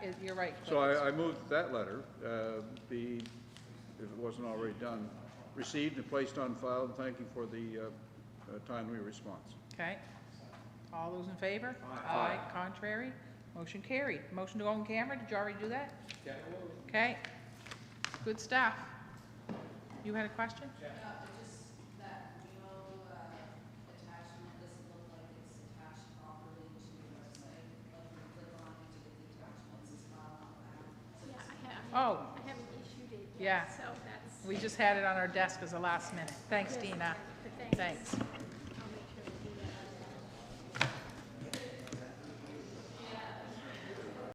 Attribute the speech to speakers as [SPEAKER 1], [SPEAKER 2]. [SPEAKER 1] is, you're right,
[SPEAKER 2] So
[SPEAKER 1] Cliff.
[SPEAKER 2] I, I moved that letter, uh, be, if it wasn't already done, received and placed on file, and thank you for the uh, uh, timely response.
[SPEAKER 1] Okay. All those in favor? Aye. Contrary? Motion carried. Motion to go on camera, did you already do that? Okay. Good stuff. You had a question?
[SPEAKER 3] No, but just that memo uh, attachment doesn't look like it's attached properly to the website. Like when you click on it to get the attachments, it's not on that. So
[SPEAKER 4] Yeah,
[SPEAKER 3] it's-
[SPEAKER 4] I haven't,
[SPEAKER 1] Oh,
[SPEAKER 4] I haven't issued it
[SPEAKER 1] Yeah.
[SPEAKER 4] yet, so that's.
[SPEAKER 1] we just had it on our desk as a last minute. Thanks, Dina.
[SPEAKER 4] But thanks.
[SPEAKER 1] Thanks.